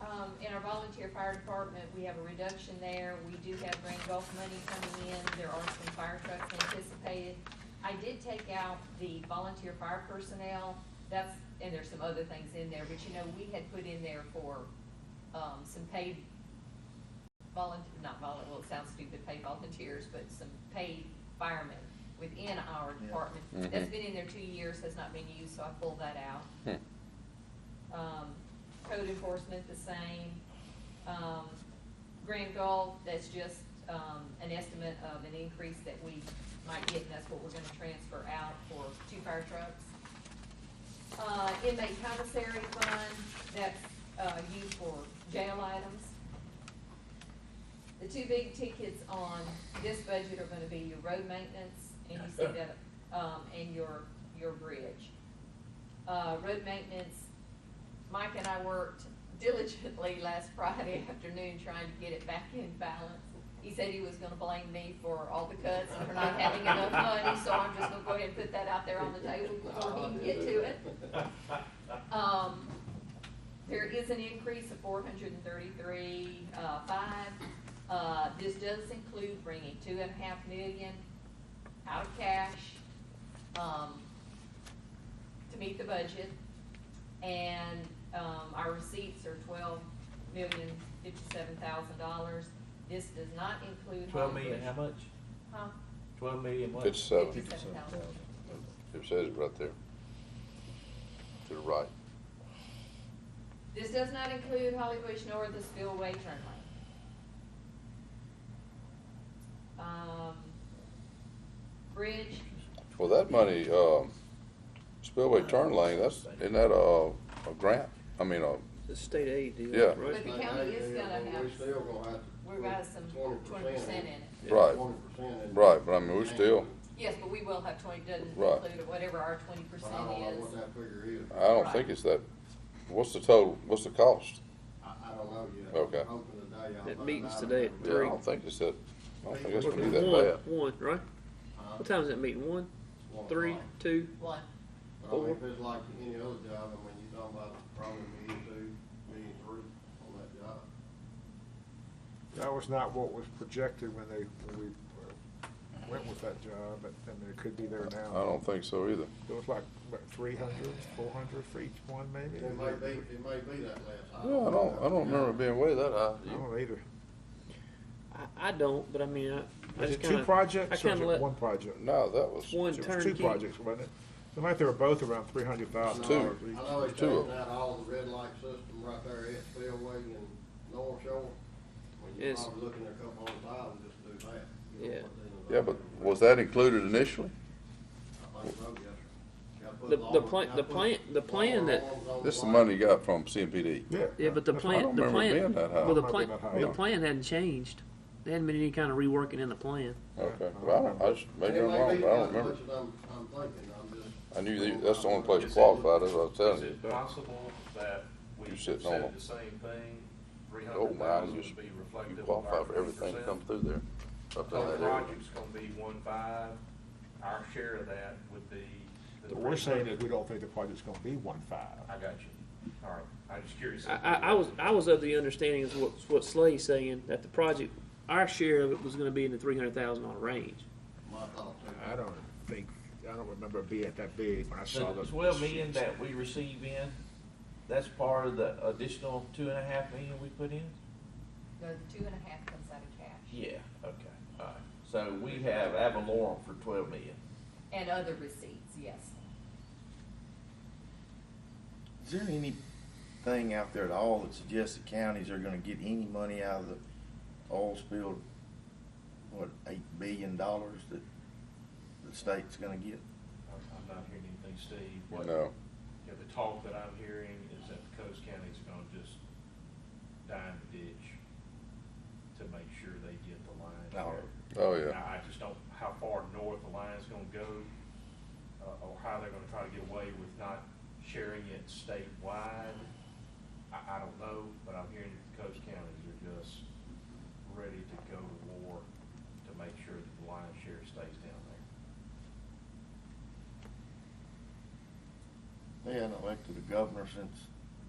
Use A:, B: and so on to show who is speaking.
A: Um, in our volunteer fire department, we have a reduction there. We do have Grand Gulf money coming in. There are some fire trucks anticipated. I did take out the volunteer fire personnel. That's, and there's some other things in there, but you know, we had put in there for, um, some paid volunteer, not volunteer, well, it sounds stupid, paid volunteers, but some paid firemen within our
B: Yeah.
A: department.
C: Mhm.
A: That's been in there two years, has not been used, so I pulled that out.
C: Hmm.
A: Um, code enforcement, the same. Um, Grand Gulf, that's just, um, an estimate of an increase that we might get, and that's what we're gonna transfer out for two fire trucks. Uh, inmate commissary fund, that's, uh, used for jail items. The two big tickets on this budget are gonna be your road maintenance, and you see that, um, and your, your bridge. Uh, road maintenance, Mike and I worked diligently last Friday afternoon trying to get it back in balance. He said he was gonna blame me for all the cuts and for not having enough money, so I'm just gonna go ahead and put that out there on the table before he can get to it. Um, there is an increase of four hundred and thirty-three, uh, five. Uh, this does include bringing two and a half million out of cash, um, to meet the budget. And, um, our receipts are twelve million fifty-seven thousand dollars. This does not include.
D: Twelve
A: home
D: million, how
A: improvement-
D: much?
A: Huh?
D: Twelve million what?
C: It's, uh,
A: Fifty.
B: Fifty-seven thousand.
C: it says it right there. To the right.
A: This does not include Holly Bush nor the spillway turn lane. Um, bridge,
C: Well, that money, um, spillway turn lane, that's, isn't that a, a grant? I mean, a,
E: The state aid deal.
C: Yeah.
A: but the county is gonna have,
F: We still gonna have to.
A: we're about some twenty percent in it.
C: Right.
F: Twenty percent.
C: right, but I mean, we still,
A: Yes, but we will have twenty, doesn't
C: Right.
A: include it, whatever our twenty
F: But
A: percent
F: I don't know
A: is.
F: what that figure is.
C: I don't think it's that, what's the total, what's the cost?
F: I, I don't know yet.
C: Okay.
F: I'm hoping today I'll
E: That
F: find
E: meeting's
F: out.
E: today at
C: Yeah, I
E: Three.
C: don't think it's that, I don't think it's gonna be
E: One,
C: that bad.
E: one, right?
F: Huh?
E: What time is that meeting? One,
F: One
E: three,
F: o'clock.
E: two?
A: One,
F: But I mean, if
E: four.
F: it's like any other job, I mean, you're talking about probably million two, million three on that job.
G: That was not what was projected when they, when we uh, went with that job, but, I mean, it could be there
C: I
G: now.
C: don't think so either.
G: It was like, what, three hundred, four hundred for each one, maybe?
F: It may be, it may be that last.
C: Yeah, I don't, I don't remember it being way that high.
G: I don't know either.
E: I, I don't, but I mean, I, I
G: Is
E: just
G: it
E: kinda.
G: two projects
E: I
G: or is
E: kinda
G: it
E: let,
G: one project?
C: No, that was.
E: one
G: It was two
E: turnkey.
G: projects, wasn't it? Seemed like they were both around three hundred thousand dollars
C: Two.
F: I
G: each.
F: know it's
C: Two of
F: taking out all the red light system right there at Spillway and North Shore. Well, you're
E: Yes.
F: probably looking at a couple hundred thousand just to do that. You know,
E: Yeah.
F: put that in
C: Yeah,
F: the-
C: but was that included initially?
F: I think so, yes, sir. Gotta put
E: The-
F: long-
E: the plan-
F: gotta
E: the
F: put
E: plan- the
F: long
E: plan that-
F: arms on
C: This is the
F: line.
C: money you got from CMPD.
G: Yeah.
E: Yeah, but the
G: that's
C: I
E: plan,
C: don't
E: the
C: remember it
E: plan,
C: being that high.
E: well, the
G: Might be
E: plan,
G: that high.
E: the plan hadn't changed. There hadn't been any kind of reworking in the plan.
C: Okay, well, I don't, I just, maybe I'm
F: It may
C: wrong,
F: be
C: but I
F: as
C: don't remember.
F: much as I'm, I'm thinking, I'm just.
C: I knew that- that's the only place
H: Is it-
C: qualified, that's what I was telling
H: Is
C: you.
H: it possible that we
C: You're
H: said
C: sitting on them.
H: the same thing, three
C: Oh,
H: hundred
C: man,
H: thousand
C: you,
H: would be
C: you
H: reflective of
C: qualify
H: our
C: for
H: three
C: everything
H: percent?
C: come through there. Up in
H: So the
C: that area.
H: project's gonna be one five, our share of that would be. the
G: What we're saying is
H: 300.
G: we don't think the project's gonna be one
H: I
G: five.
H: got you, all right, I'm just curious.
E: I, I, I was, I was of the understanding is what, what Slay's saying, that the project, our share of it was gonna be in the three hundred thousand dollar range.
F: My thought too.
G: I don't think, I don't remember it being that big when I saw
D: The
G: the.
D: twelve million that we receive in, that's part of the additional two and a half million we put in?
A: no, the two and a half comes out of cash
D: Yeah, okay, all right. So we have Avalorum for twelve million.
A: and other receipts, yes.
I: Is there anything out there at all that suggests the counties are gonna get any money out of the oil spill, what, eight billion dollars that the state's gonna get?
H: I'm I'm not hearing anything, Steve, what, you
C: No,
H: know, the talk that I'm hearing is that the coast county's gonna just dime the ditch to make sure they get the line.
I: No.
C: oh, yeah.
H: I I just don't, how far north the line's gonna go, uh, or how they're gonna try to get away with not sharing it statewide. I, I don't know, but I'm hearing that the coast counties are just ready to go to war to make sure that the lion share stays down there.
I: They hadn't elected a governor since